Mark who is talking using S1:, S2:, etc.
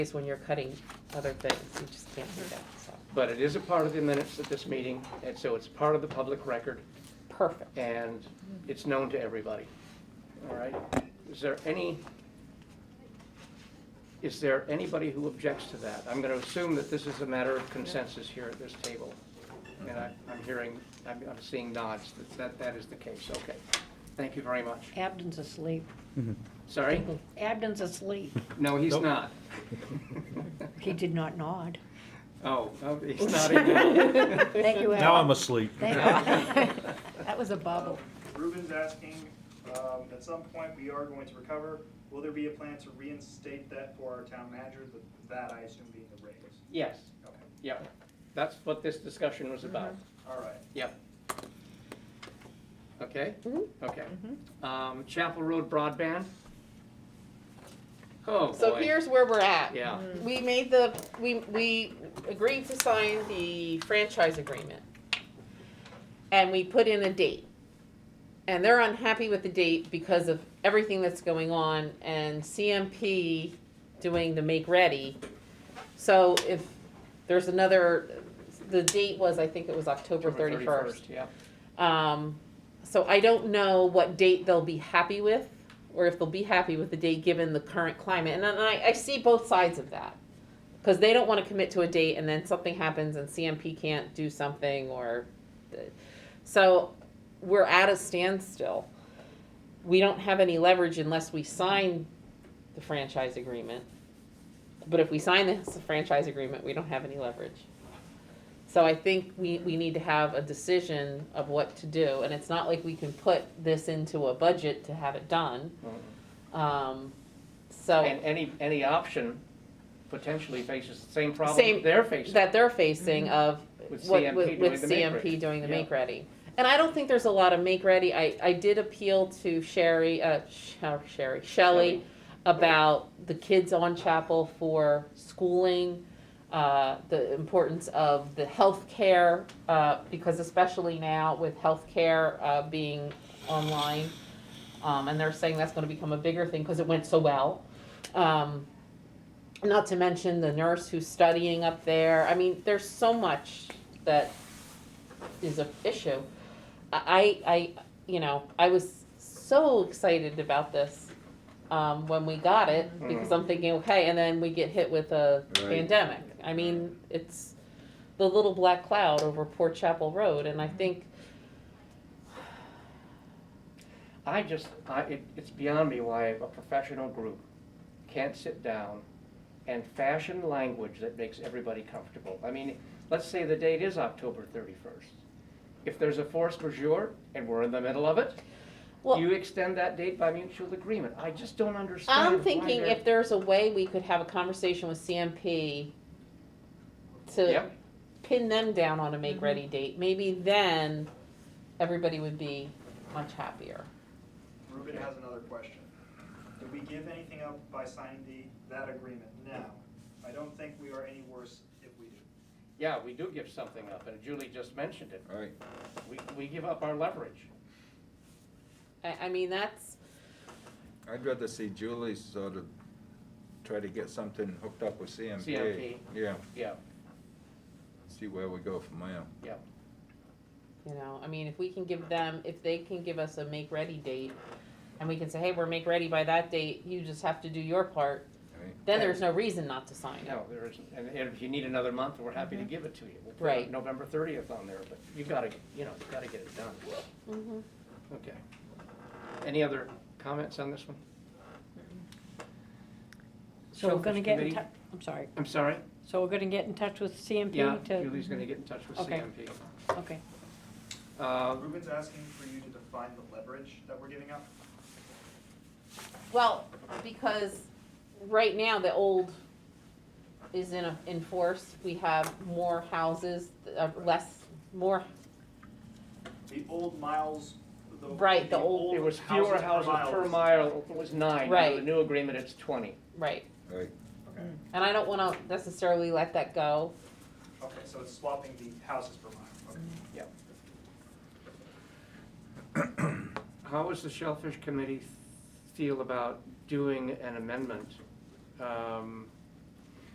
S1: is when you're cutting other things, you just can't do that, so,
S2: But it is a part of the minutes at this meeting, and so it's part of the public record,
S1: perfect.
S2: and it's known to everybody. All right? Is there any, is there anybody who objects to that? I'm going to assume that this is a matter of consensus here at this table. And I- I'm hearing, I'm I'm seeing nods, that- that that is the case. Okay. Thank you very much.
S3: Abden's asleep.
S2: Sorry?
S3: Abden's asleep.
S2: No, he's
S4: Nope.
S2: not.
S3: He did not nod.
S2: Oh, oh, he's nodding now.
S3: Thank you, Abden.
S4: Now I'm asleep.
S3: Thank you. That was a bubble.
S5: Ruben's asking, um, at some point, we are going to recover. Will there be a plan to reinstate that for our town manager? Th- That, I assume, being the raise.
S2: Yes,
S5: Okay,
S2: yep. That's what this discussion was about.
S1: Mm-hmm.
S5: all right.
S2: Yep. Okay?
S1: Mhm.
S2: Okay. Um, Chapel Road broadband? Oh, boy.
S1: So here's where we're at.
S2: Yeah,
S1: We made the, we, we agreed to sign the franchise agreement. And we put in a date. And they're unhappy with the date because of everything that's going on and CMP doing the make ready. So if there's another, the date was, I think it was October thirty-first.
S2: Yeah,
S1: Um, so I don't know what date they'll be happy with, or if they'll be happy with the date given the current climate. And then I, I see both sides of that. Because they don't want to commit to a date and then something happens and CMP can't do something or, so we're at a standstill. We don't have any leverage unless we sign the franchise agreement. But if we sign this franchise agreement, we don't have any leverage. So I think we, we need to have a decision of what to do, and it's not like we can put this into a budget to have it done. Um, so,
S2: and any, any option potentially faces the same problem
S1: Same-
S2: they're facing.
S1: that they're facing of
S2: Mm-hmm. With
S1: what,
S2: CMP
S1: with
S2: doing
S1: with
S2: the make ready.
S1: CMP doing the
S2: Yeah.
S1: make ready. And I don't think there's a lot of make ready, I, I did appeal to Sherry, uh, Sh- uh, Sherry, Shelley, about the kids on Chapel for schooling, uh, the importance of the healthcare, uh, because especially now with healthcare, uh, being online, um, and they're saying that's gonna become a bigger thing, cause it went so well. Um, not to mention the nurse who's studying up there. I mean, there's so much that is a issue. I, I, I- you know, I was so excited about this um, when we got it because I'm thinking, okay, and then we get hit with a
S6: Right.
S1: pandemic. I mean, it's the little black cloud over Port Chapel Road, and I think
S2: I just, I, it, it's beyond me why a professional group can't sit down and fashion language that makes everybody comfortable. I mean, let's say the date is October thirty-first. If there's a force majeure and we're in the middle of it,
S1: Well-
S2: you extend that date by mutual agreement. I just don't understand.
S1: I'm
S2: why
S1: thinking
S2: they're-
S1: if there's a way we could have a conversation with CMP to
S2: Yep.
S1: pin them down on a make-ready date, maybe then everybody would be much happier.
S5: Ruben has another question. Did we give anything up by signing the, that agreement now? I don't think we are any worse if we do.
S2: Yeah, we do give something up, and Julie just mentioned it.
S6: All right,
S2: We, we give up our leverage.
S1: I, I mean, that's,
S6: I'd rather see Julie sort of try to get something hooked up with CMP.
S2: CMP.
S6: Yeah,
S2: Yeah,
S6: see where we go from there.
S2: yeah.
S1: you know, I mean, if we can give them, if they can give us a make-ready date, and we can say, hey, we're make-ready by that date, you just have to do your part,
S6: right?
S1: then there's no reason not to sign it.
S2: No, there isn't. And and if you need another month, we're happy
S3: Mm-hmm.
S2: to give it to you. We'll put
S1: Right.
S2: November thirtieth on there, but you gotta, you know, you gotta get it done.
S1: Mhm.
S2: Okay. Any other comments on this one?
S3: So we're gonna
S2: Shellfish
S3: get in
S2: Committee?
S3: touch, I'm sorry,
S2: I'm sorry?
S3: so we're gonna get in touch with
S2: Yeah,
S3: CMP
S2: Julie's
S3: to,
S2: gonna get in touch with
S3: Okay.
S2: CMP.
S3: okay.
S2: Uh,
S5: Ruben's asking for you to define the leverage that we're giving up.
S1: Well, because right now the old is in, a- in force, we have more houses, uh, less, more,
S5: The old miles, the.
S1: Right, the old-
S2: It was fewer houses per
S5: miles.
S2: mile, it was nine. Now The
S1: Right.
S2: new agreement, it's twenty.
S1: right,
S6: Right,
S5: Okay,
S1: and I don't wanna necessarily let that go.
S5: okay, so it's swapping the houses per mile, okay.
S2: How does the Shellfish Committee feel about doing an amendment um,